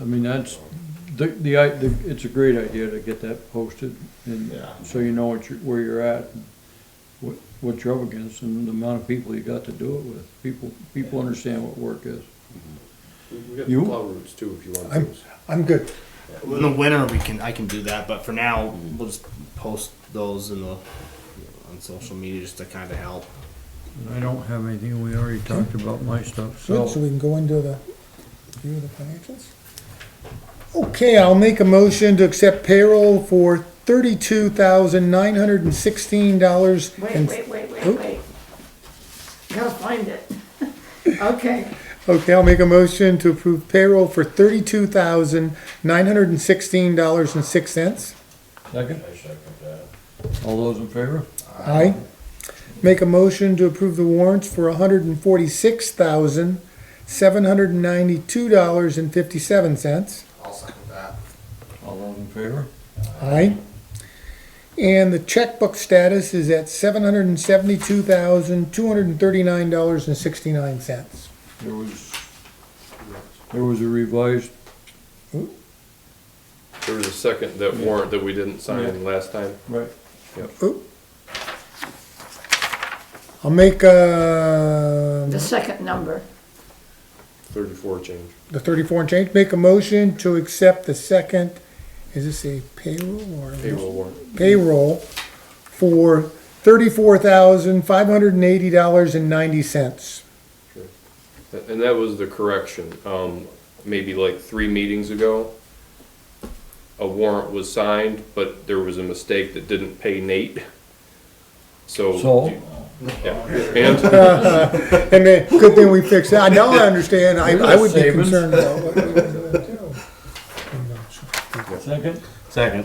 I mean, that's, the, the, i- the- it's a great idea to get that posted and Yeah. so you know what you, where you're at, and what, what you're up against and the amount of people you got to do it with. People, people understand what work is. We- We got You- the plow roots too, if you want I'm, those. I'm good. In the winter, we can I can do that, but for now, we'll just post those in the on social media just to kind of help. And I don't have anything, we already talked about my stuff, Good, so we can go into the view of the financials? Okay, I'll make a motion to accept payroll for thirty-two thousand nine hundred and sixteen dollars Wait, wait, wait, wait, Oop. wait. Gotta find it. Okay, Okay, I'll make a motion to approve payroll for thirty-two thousand nine hundred and sixteen dollars and six cents. Second? All those in favor? Aye. Make a motion to approve the warrants for hundred and forty-six thousand seven hundred and ninety-two dollars and fifty-seven cents. I'll second that. All those in favor? Aye. And the checkbook status is at seven hundred and seventy-two thousand, two hundred and thirty-nine dollars and sixty-nine cents. There was, there was a revised, There was a second, that warrant that we didn't sign last time. right, I'll make, uh, the second number. Thirty-four change. the thirty-four and change, make a motion to accept the second, is this a payroll or? Payroll warrant. Payroll for thirty-four thousand, five hundred and eighty dollars and ninety cents. Th- And that was the correction. Um, maybe like three meetings ago, a warrant was signed, but there was a mistake that didn't pay Nate. So. so, Yeah. And And then, good thing we fixed that, now I understand, I, I would be Savings. concerned about what we were doing too. I'm not sure. second? Second.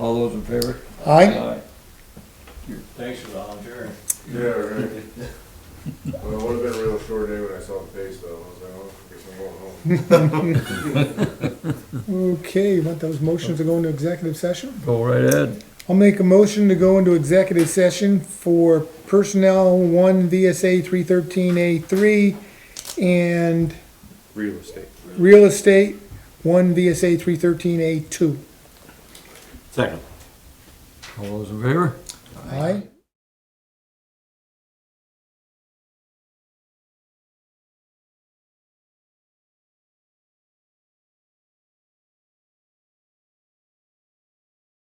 All those in favor? Aye? Thanks for volunteering. Yeah, right. Well, it would've been a real short day when I saw the face though, I was like, oh, I guess I'm going home. Okay, you want those motions to go into executive session? Go right ahead. I'll make a motion to go into executive session for personnel one VSA three thirteen A three and real estate. real estate one VSA three thirteen A two. Second. All those in favor? Aye?